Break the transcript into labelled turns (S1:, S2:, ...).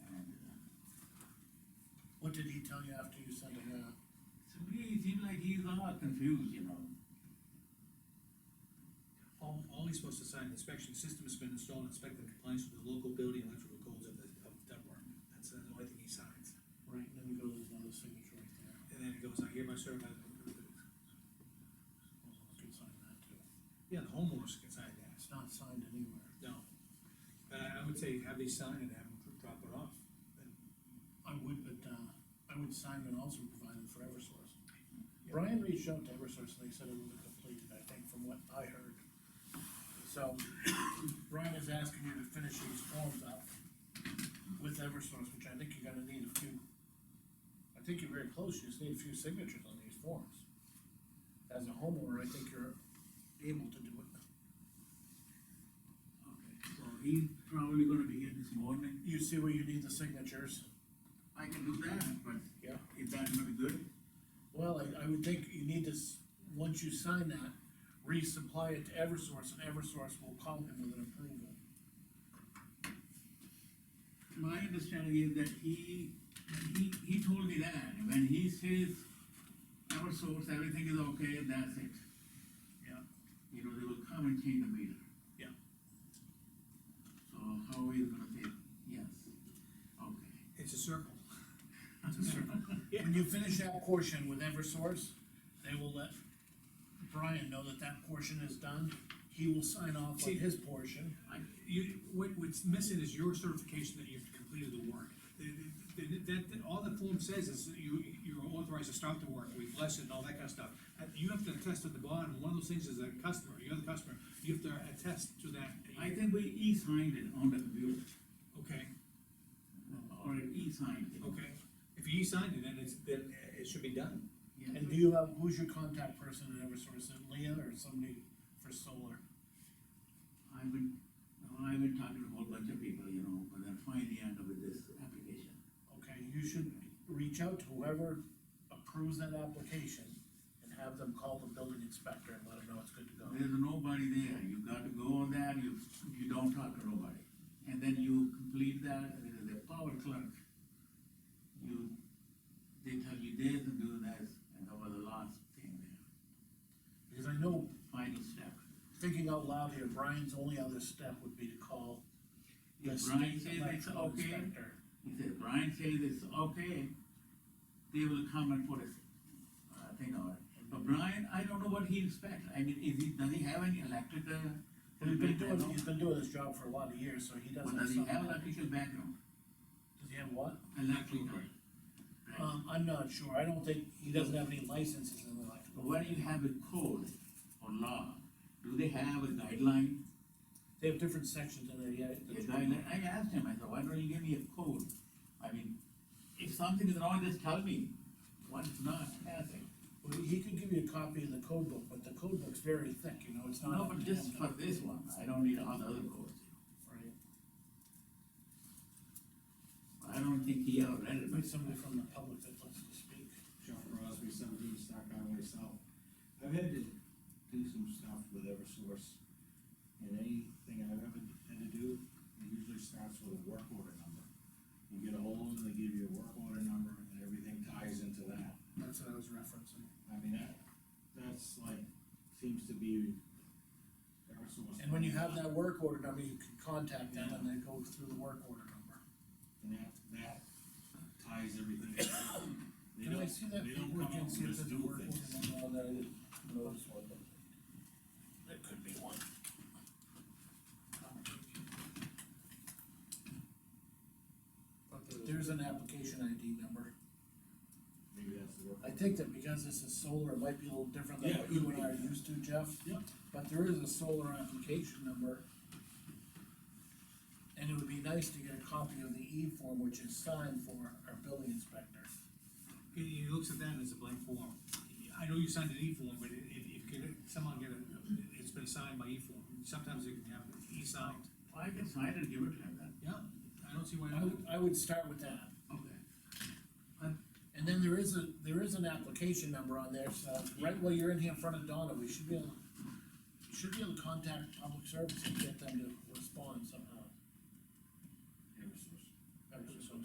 S1: What did he tell you after you sent him that?
S2: So he seemed like he's a lot confused, you know.
S3: All, all he's supposed to sign, the inspection system has been installed, inspect the compliance with the local building and electrical codes of the, of Dunbar. That's uh, the only thing he signs.
S1: Right, and then goes another signature right there.
S3: And then he goes, I hereby certify. that-"
S1: You can sign that too.
S3: Yeah, the homeowners can sign that,
S1: It's not signed anywhere.
S3: no. But I, I would say have these signed and have them drop it off.
S1: I would, but, uh, I would sign it also provided for Eversource. Brian reached out to Eversource and they said it was completed, I think, from what I heard. So, Brian is asking you to finish these forms up with Eversource, which I think you're gonna need a few. I think you're very close, you just need a few signatures on these forms. As a homeowner, I think you're able to do it.
S2: Okay, so he's probably gonna be here this morning.
S1: You see where you need the signatures?
S2: I can do that, but
S1: Yeah.
S2: if that's not good,
S1: Well, I, I would think you need to, s- once you sign that, resupply it to Eversource, and Eversource will call him with an approval.
S2: my understanding is that he, he, he told me that, when he says our source, everything is okay, that's it.
S1: Yeah.
S2: You know, they will come and change the meter.
S1: Yeah.
S2: So how are you gonna say, yes, okay.
S3: It's a circle. It's a circle.
S1: When you finish that portion with Eversource, they will let Brian know that that portion is done. He will sign off on
S3: See-
S1: his portion.
S3: I- You, what, what's missing is your certification that you've completed the work. The- the- the- That, that- all the form says is that you, you're authorized to start the work, we bless it and all that kind of stuff. Uh, You have to attest at the bottom, one of those things is a customer, you're the customer, you have to attest to that.
S2: I think we e-signed it on the computer,
S3: Okay,
S2: or e-signed it.
S3: okay, if you signed it, then it's, then it should be done.
S2: Yeah.
S1: And do you have, who's your contact person at Eversource? Is it Leah or somebody for solar?
S2: I've been, I've been talking to a whole bunch of people, you know, but then finally end up with this application.
S1: Okay, you should reach out to whoever approves that application and have them call the building inspector and let him know it's good to go.
S2: There's nobody there, you got to go on that, you, you don't talk to nobody. And then you complete that, and then the power clerk, you, they tell you this and do that, and that was the last thing there,
S1: Because I know,
S2: final step.
S1: thinking out loud here, Brian's only other step would be to call the
S2: If Brian
S1: state
S2: says it's
S1: electrical
S2: okay,
S1: inspector.
S2: he said, Brian says it's okay, they will come and put a, uh, thing on it. But Brian, I don't know what he inspects, I mean, is he, does he have any electrical?
S1: He's been doing,
S2: background?
S1: he's been doing this job for a lot of years, so he does
S2: Or
S1: have
S2: does he
S1: some.
S2: have electrical background,
S1: Does he have what?
S2: electrical? Right.
S1: Um, I'm not sure, I don't think, he doesn't have any licenses in
S2: But
S1: electrical.
S2: When you have a code or law, do they have a guideline?
S1: They have different sections in there, yeah.
S2: The guideline, I asked him, I said, why don't you give me a code? I mean, if something is wrong, just tell me, what is not, has it?
S1: Well, he could give you a copy of the code book, but the code book's very thick, you know, it's not.
S2: No, but just for this one, I don't need all the other codes.
S1: Right.
S2: I don't think he ever read it, but
S1: Maybe somebody from the public that wants to speak.
S4: John Crosby, seventeen Stock Highway South. I've had to do some stuff with Eversource, and anything I've ever had to do, it usually starts with a work order number. You get a hold of them, they give you a work order number, and everything ties into that.
S1: That's what I was referencing.
S4: I mean, that, that's like, seems to be Eversource.
S1: And when you have that work order number, you can contact them and they go through the work order number.
S4: And that, that ties everything. together. They
S1: Can I
S4: don't-
S1: see that
S4: They don't
S1: paper
S4: come up
S1: again, see
S4: and
S1: if
S4: just
S1: there's
S4: do
S1: a work
S4: things.
S1: order number on that, I didn't notice one. but There could be one. There's an application ID number.
S4: Maybe that's the work.
S1: I think that because this is solar, it might be a little different than
S4: Yeah,
S1: what
S4: could
S1: you and I
S4: be.
S1: are used to, Jeff.
S4: Yeah.
S1: But there is a solar application number. And it would be nice to get a copy of the E form, which is signed for our building inspector.
S3: He, he looks at that as a blank form. I know you signed an E-form, but if, if you could somehow get it, it's been signed by E-form, sometimes it can have E-signed.
S2: I can sign it, give it to him then.
S3: Yeah, I don't see why
S1: I
S3: not.
S1: would, I would start with that.
S2: Okay.
S1: And then there is a, there is an application number on there, so right while you're in here in front of Donna, we should be able, should be able to contact public service and get them to respond somehow.